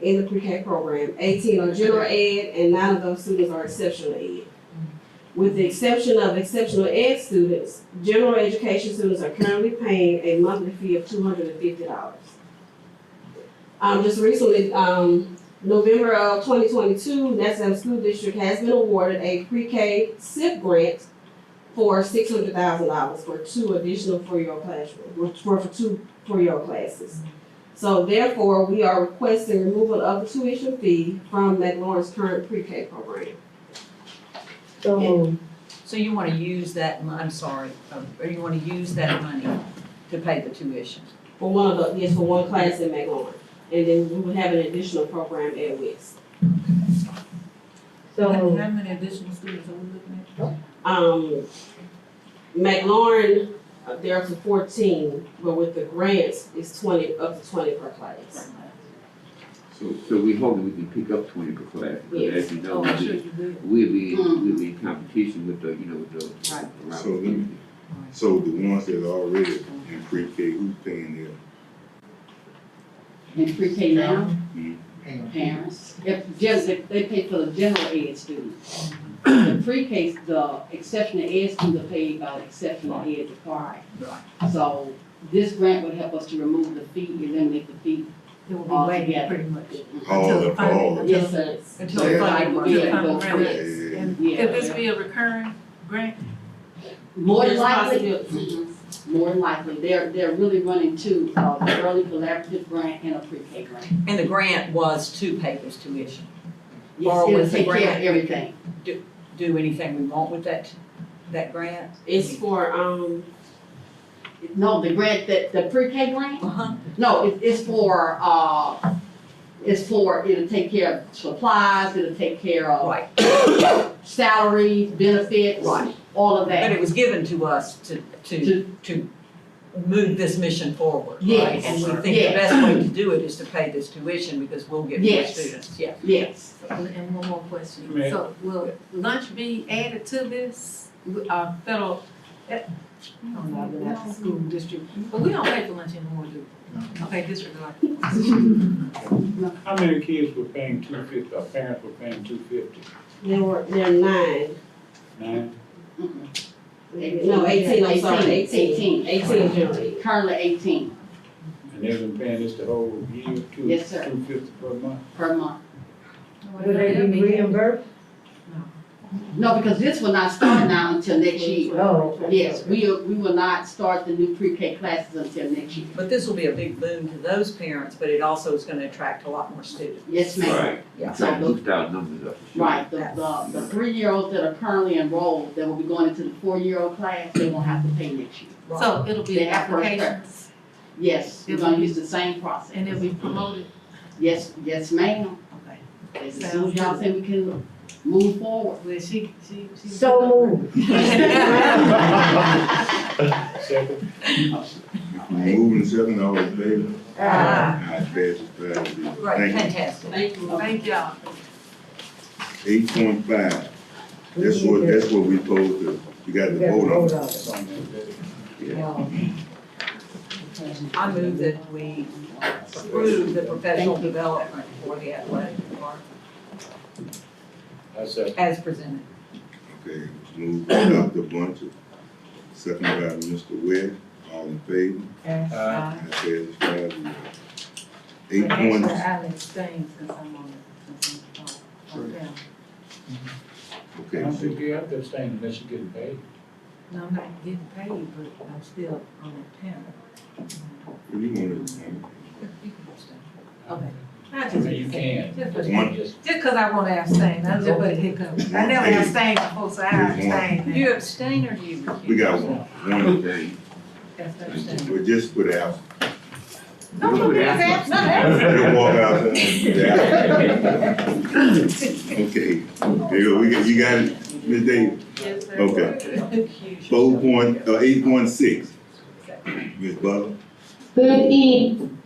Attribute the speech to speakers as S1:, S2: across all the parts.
S1: in the pre-K program, eighteen are general ed, and nine of those students are exceptional ed. With the exception of exceptional ed students, general education students are currently paying a monthly fee of two hundred and fifty dollars. Um, just recently, um, November of twenty twenty-two, Nassau School District has been awarded a pre-K SIP grant for six hundred thousand dollars for two additional four-year classrooms, for, for two four-year classes. So therefore, we are requesting removal of the tuition fee from McLaurin's current pre-K program.
S2: So moved.
S3: So you wanna use that, mon- I'm sorry, um, or you wanna use that money to pay the tuition?
S1: For one of the, yes, for one class in McLaurin. And then we would have an additional program at West.
S2: So
S4: How
S2: moved.
S4: how many additional students are we looking at?
S1: Um, McLaurin, uh, they're up to fourteen, but with the grants, it's twenty, up to twenty per class.
S5: So, so we hope we can pick up twenty per class, because as you know,
S4: Oh,
S5: we'll
S4: I'm sure Mm-hmm.
S5: be,
S4: you will.
S5: we'll be, we'll be in competition with the, you know, with the.
S3: Right.
S5: around
S6: So
S5: the
S6: let me-
S5: country.
S6: So the ones that are already in pre-K, who's paying their
S7: in pre-K now,
S6: Mhm.
S7: parents, if, just, if they pay for the general ed students. The pre-K, the exceptional ed students are paid by the exceptional ed department.
S3: Right.
S7: So this grant would help us to remove the fee, eliminate the fee.
S4: They will
S7: All
S4: be waiting
S7: together.
S4: pretty much.
S6: all
S4: Until
S6: of, all of?
S7: Yes, sir.
S3: Until
S6: Yeah.
S3: the funding
S7: Right,
S3: runs
S7: yeah.
S3: out.
S4: Until the
S7: Yeah.
S4: funding is- And
S7: Yeah.
S4: could this be a recurring grant?
S7: More than
S1: There's
S7: likely, Mm-hmm.
S1: possibility.
S7: more than likely, they're, they're really running two, uh, the early collaborative grant and a pre-K grant.
S3: And the grant was to pay this tuition.
S7: Yes,
S3: Or
S7: it'll
S3: with the
S7: take care
S3: grant.
S7: of everything.
S3: Do anything we want with that, that grant?
S1: It's for, um,
S7: No, the grant, that, the pre-K grant,
S3: Uh-huh.
S7: No, it, it's for, uh, it's for, it'll take care of supplies, it'll take care of
S3: Right,
S7: salaries, benefits,
S3: Right.
S7: all of
S3: but
S7: that.
S3: it was given to us to, to,
S7: To-
S3: to move this mission forward, right?
S7: Yes.
S3: And we think the
S7: Yes.
S3: best way to do it is to pay this tuition because we'll get more
S7: Yes.
S3: students, yeah.
S7: Yes,
S4: And and one more question.
S8: Ma'am.
S4: So will lunch be added to this, W- uh, federal? I don't know, but that's the school district, but we don't pay for lunch anymore, do we? Okay, disregard.
S8: How many kids were paying two fifty, or parents were paying two fifty?
S1: there were, there are nine.
S8: Nine?
S1: No, eighteen, I'm sorry, eighteen.
S7: Eighteen.
S1: Eighteen general ed.
S7: currently eighteen
S8: And they've been paying this the whole year, two, two
S7: Yes, sir.
S8: fifty per month?
S7: per month.
S2: Will they be reimbursed?
S7: No, because this will not start now until next year.
S4: Oh,
S2: No.
S7: Yes, we, we will not start the new pre-K classes until next year.
S3: But this will be a big boon to those parents, but it also is gonna attract a lot more students.
S7: Yes, ma'am.
S5: Right,
S3: Yeah.
S5: we're trying to boost our numbers up. for sure.
S7: Right, the, the, the three-year-olds that are currently enrolled, that will be going into the four-year-old class, they won't have to pay next year.
S3: Right.
S4: So it'll be
S7: They have first
S4: applications
S7: Yes, we're gonna use the same process.
S4: and it'll be promoted.
S7: Yes, yes, ma'am.
S4: Okay.
S7: As soon as y'all say we can move forward.
S4: Well, she, she, she.
S2: So moved.
S8: Second?
S6: If we moving seven, all in favor?
S1: Uh,
S2: Ah.
S6: Aye, passes five zero.
S3: Right,
S6: Thank you.
S3: fantastic.
S1: Thank you.
S4: Thank y'all.
S6: Eight point five, that's what, that's what we supposed to, we got to
S2: We got to
S6: vote on.
S2: vote
S3: I move that we approve the professional development for the athletic department
S8: I said,
S3: as presented.
S6: Okay, move by Dr. Bunch, second by Mr. Webb, all in favor?
S2: on it.
S8: uh,
S6: Aye, passes five zero.
S4: Well,
S6: Eight
S4: Actually,
S6: point,
S4: I'll abstain since I'm on it, since I'm on, on down.
S8: I don't think
S6: okay,
S8: you have to abstain unless you're getting paid.
S4: No, I'm not getting paid, but I'm still on that panel.
S6: so you want to,
S3: You can abstain.
S4: Okay. I just-
S8: You can.
S4: Just
S6: One.
S4: because- just because I want to abstain, I just put a hiccup. I never
S6: Hey.
S4: abstained before, so I
S6: Here's one.
S4: abstain
S3: Do
S4: now.
S3: you abstain or do you recuse?
S6: we got one, one thing,
S4: That's abstain.
S6: we just put out.
S4: No, no,
S5: We're
S4: that's
S5: asking.
S4: abstain.
S6: They walk out there. Okay, there you go, we got, you got it, Ms. Davis,
S4: Yes, sir.
S6: okay.
S3: Recuse
S6: Four
S3: yourself.
S6: point, uh, eight point six. Ms. Butler,
S9: Good evening,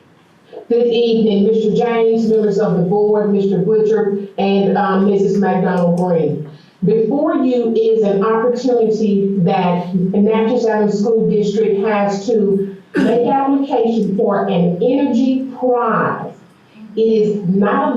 S9: good evening, Mr. James, members of the board, Mr. Butcher, and um, Mrs. McDonald Green. Before you is an opportunity that the Natchez Island School District has to make application for an energy prize. It is not a